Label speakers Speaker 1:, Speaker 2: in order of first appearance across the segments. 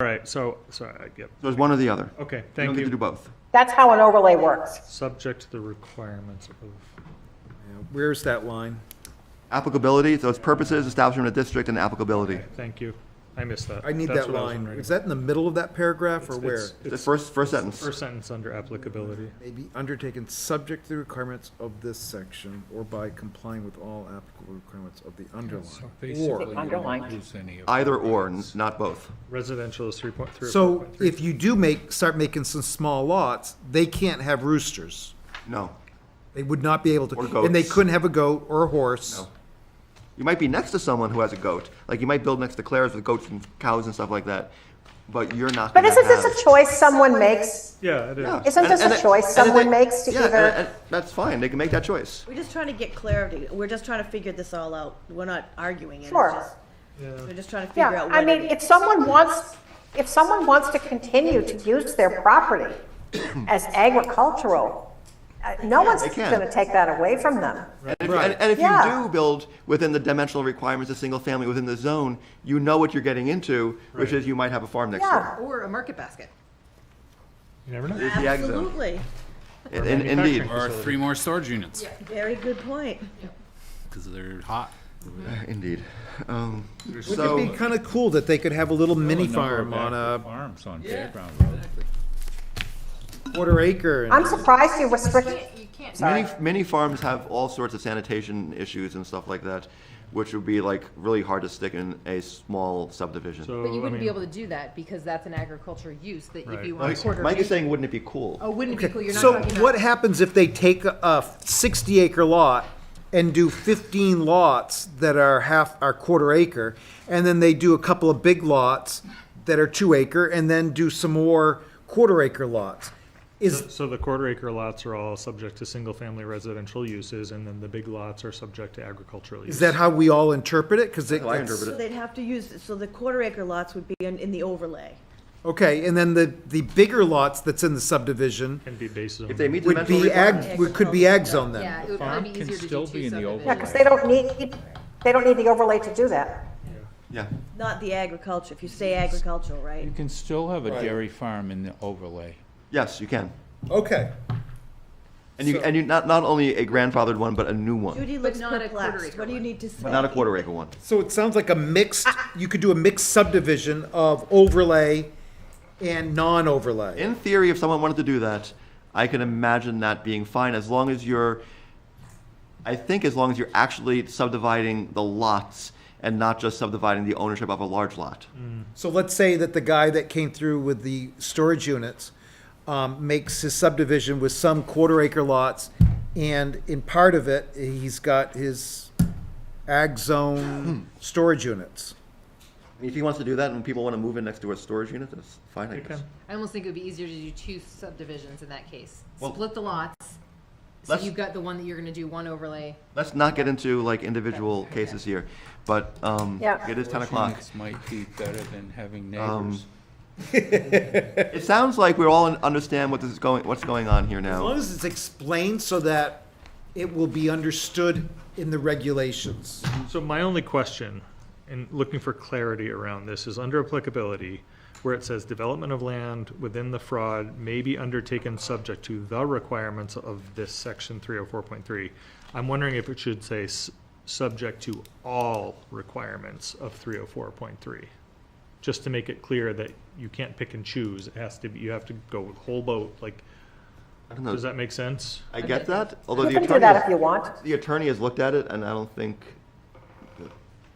Speaker 1: right, so, sorry, I get,
Speaker 2: So it's one or the other.
Speaker 1: okay,
Speaker 2: You don't
Speaker 1: thank
Speaker 2: get to do
Speaker 1: you.
Speaker 2: both.
Speaker 3: That's how an overlay works.
Speaker 1: Subject to the requirements of,
Speaker 4: Where's that line?
Speaker 2: Applicability, so it's purposes, establishment of district, and applicability.
Speaker 1: thank you, I missed that.
Speaker 4: I need
Speaker 1: That's
Speaker 4: that
Speaker 1: what I was
Speaker 4: line.
Speaker 1: wondering.
Speaker 4: Is that in the middle of that paragraph or
Speaker 1: It's-
Speaker 4: where?
Speaker 1: it's-
Speaker 2: The
Speaker 1: it's
Speaker 2: first, first sentence.
Speaker 1: First sentence under applicability.
Speaker 4: May be undertaken subject to the requirements of this section or by complying with all applicable requirements of the
Speaker 5: So
Speaker 4: underlying.
Speaker 5: basically, you
Speaker 3: underline.
Speaker 5: don't lose any of.
Speaker 2: Either or, n- not both.
Speaker 1: Residential is three point three.
Speaker 4: So if you do make, start making some small lots, they can't have roosters.
Speaker 2: No.
Speaker 4: They would not be able to.
Speaker 2: Or
Speaker 4: And they
Speaker 2: goats.
Speaker 4: couldn't have a goat or a horse.
Speaker 2: No. You might be next to someone who has a goat. Like you might build next to Claire's with goats and cows and stuff like that. But you're not.
Speaker 3: But
Speaker 2: gonna
Speaker 3: isn't this
Speaker 2: have-
Speaker 3: a choice someone makes?
Speaker 1: Yeah, it
Speaker 2: Yeah.
Speaker 1: is.
Speaker 3: Isn't
Speaker 2: And-
Speaker 3: this
Speaker 2: and
Speaker 3: a
Speaker 2: it-
Speaker 3: choice
Speaker 2: and it-
Speaker 3: someone makes to
Speaker 2: yeah, and-
Speaker 3: either?
Speaker 2: and That's fine. They can make that choice.
Speaker 6: We're just trying to get clarity. We're just trying to figure this all out. We're not arguing it. It's
Speaker 3: Sure.
Speaker 6: just- We're just trying to figure
Speaker 3: Yeah,
Speaker 6: out
Speaker 3: I
Speaker 6: what
Speaker 3: mean,
Speaker 6: it
Speaker 3: if
Speaker 6: is.
Speaker 3: someone wants, if someone wants to continue to use their property as agricultural, uh, no one's
Speaker 2: they can.
Speaker 3: going to take that away from them.
Speaker 2: And if, and, and if
Speaker 3: Yeah.
Speaker 2: you do build within the dimensional requirements of single family within the zone, you know what you're getting into, which is you might have a farm next
Speaker 3: Yeah,
Speaker 2: door.
Speaker 6: Or a market basket.
Speaker 1: You never know.
Speaker 2: It's the ag zone.
Speaker 6: Absolutely.
Speaker 2: In- in- Indeed.
Speaker 1: manufacturing.
Speaker 5: Or three more storage units,
Speaker 6: Very good point.
Speaker 5: because they're hot.
Speaker 2: Indeed. Um,
Speaker 4: It'd be
Speaker 2: so,
Speaker 4: kind of cool that they could have a little mini
Speaker 5: Number of
Speaker 4: farm on
Speaker 5: active
Speaker 4: a
Speaker 5: Farms on Fairground Road.
Speaker 4: quarter acre. and-
Speaker 3: I'm surprised you restrict,
Speaker 7: You can't
Speaker 2: many, many farms have all sorts of sanitation issues and stuff like that, which would be like really hard to stick in a small subdivision.
Speaker 1: So,
Speaker 7: But you
Speaker 1: I
Speaker 7: wouldn't be
Speaker 1: mean,
Speaker 7: able to do that because that's an agricultural use that if
Speaker 1: Right.
Speaker 7: you want
Speaker 2: Mike
Speaker 7: a quarter.
Speaker 2: Mike is
Speaker 7: acre-
Speaker 2: saying, wouldn't it be cool?
Speaker 7: Oh, wouldn't it be cool, you're not
Speaker 4: So
Speaker 7: talking
Speaker 4: what
Speaker 7: about,
Speaker 4: happens if they take a- a sixty acre lot and do fifteen lots that are half, are quarter acre? And then they do a couple of big lots that are two acre and then do some more quarter acre lots? Is,
Speaker 1: so the quarter acre lots are all subject to single family residential uses and then the big lots are subject to agricultural use.
Speaker 4: is that how we all interpret it? Cause it.
Speaker 2: I interpret
Speaker 6: So
Speaker 2: it.
Speaker 6: they'd have to use, so the quarter acre lots would be in, in the overlay.
Speaker 4: Okay, and then the, the bigger lots that's in the subdivision
Speaker 1: Can be based on.
Speaker 2: If they meet
Speaker 4: would
Speaker 2: dimensional
Speaker 4: be
Speaker 2: requirements.
Speaker 4: ag, would- could be ag zone then.
Speaker 7: yeah, it would
Speaker 5: farm
Speaker 7: probably be
Speaker 5: can
Speaker 7: easier to
Speaker 5: still
Speaker 7: do
Speaker 5: be
Speaker 7: two
Speaker 5: in the old
Speaker 3: yeah, because
Speaker 7: subdivisions.
Speaker 3: they don't need, they don't need the overlay to do that.
Speaker 2: Yeah,
Speaker 6: Not the agriculture, if you say agricultural, right?
Speaker 5: You can still have a dairy farm in the overlay.
Speaker 2: yes, you can.
Speaker 4: Okay.
Speaker 2: And you, and you, not, not only a grandfathered one, but a new one,
Speaker 6: Judy looks
Speaker 7: not a quarter
Speaker 6: perplexed.
Speaker 7: acre
Speaker 6: What do you
Speaker 7: one.
Speaker 6: need to say?
Speaker 2: but not a quarter acre one.
Speaker 4: So it sounds like a mixed, you could do a mixed subdivision of overlay and non-overlay.
Speaker 2: In theory, if someone wanted to do that, I can imagine that being fine as long as you're, I think as long as you're actually subdividing the lots and not just subdividing the ownership of a large lot.
Speaker 1: Mm.
Speaker 4: So let's say that the guy that came through with the storage units um, makes his subdivision with some quarter acre lots, and in part of it, he's got his ag zone storage units.
Speaker 2: I mean, If he wants to do that and people want to move in next to a storage unit, that's fine, I
Speaker 1: They
Speaker 2: guess.
Speaker 1: can.
Speaker 7: I almost think it would be easier to do two subdivisions in that case.
Speaker 2: Well,
Speaker 7: Split the lots, so
Speaker 2: let's-
Speaker 7: you've got the one that you're gonna do one overlay.
Speaker 2: Let's not get into like individual cases here, but, um,
Speaker 3: Yeah.
Speaker 2: it is ten
Speaker 5: Those
Speaker 2: o'clock. Um,
Speaker 5: units Might be better than having neighbors.
Speaker 2: It sounds like we all understand what this is going, what's going on here
Speaker 4: As
Speaker 2: now.
Speaker 4: long as it's explained so that it will be understood in the regulations.
Speaker 1: So my only question, and looking for clarity around this, is under applicability, where it says development of land within the fraud may be undertaken subject to the requirements of this section three oh four point three. I'm wondering if it should say s- subject to all requirements of three oh four point three. Just to make it clear that you can't pick and choose. It has to be, you have to go whole boat, like,
Speaker 2: I don't know.
Speaker 1: does that make sense?
Speaker 2: I get that, although
Speaker 3: You
Speaker 2: the
Speaker 3: can do
Speaker 2: attorney,
Speaker 3: that if you
Speaker 2: has-
Speaker 3: want.
Speaker 2: the attorney has looked at it and I don't think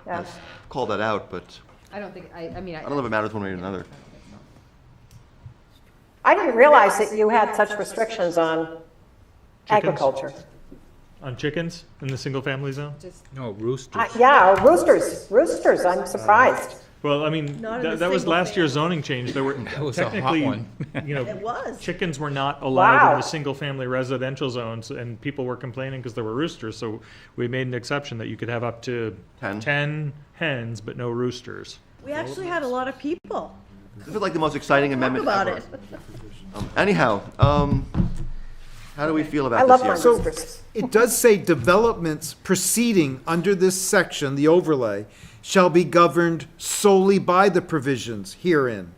Speaker 3: Yeah.
Speaker 2: has called that out, but
Speaker 7: I don't think, I, I mean, I.
Speaker 2: I don't know if it matters one way or another.
Speaker 3: I didn't realize that you had such restrictions on
Speaker 1: Chickens.
Speaker 3: agriculture.
Speaker 1: On chickens in the single family zone?
Speaker 5: No,
Speaker 3: Uh,
Speaker 5: roosters.
Speaker 3: Yeah, roosters, roosters, I'm surprised.
Speaker 1: Well, I mean,
Speaker 6: Not in
Speaker 1: that,
Speaker 6: a
Speaker 1: that was
Speaker 6: single
Speaker 1: last year's
Speaker 6: family.
Speaker 1: zoning change. There were
Speaker 5: was a hot
Speaker 1: technically,
Speaker 5: one.
Speaker 1: you
Speaker 6: It
Speaker 1: know,
Speaker 6: was.
Speaker 1: chickens were not allowed in
Speaker 3: Wow.
Speaker 1: the single-family residential zones, and people were complaining because there were roosters. So we made an exception that you could have up to
Speaker 2: Ten.
Speaker 1: ten hens, but no roosters.
Speaker 6: We actually had a lot of people
Speaker 2: This is like the most exciting
Speaker 6: talk
Speaker 2: amendment
Speaker 6: about
Speaker 2: ever.
Speaker 6: it.
Speaker 2: Um, Anyhow, um, how do we feel
Speaker 3: I
Speaker 2: about
Speaker 3: love my
Speaker 2: this year?
Speaker 4: So-
Speaker 3: roosters.
Speaker 4: It does say developments proceeding under this section, the overlay, shall be governed solely by the provisions herein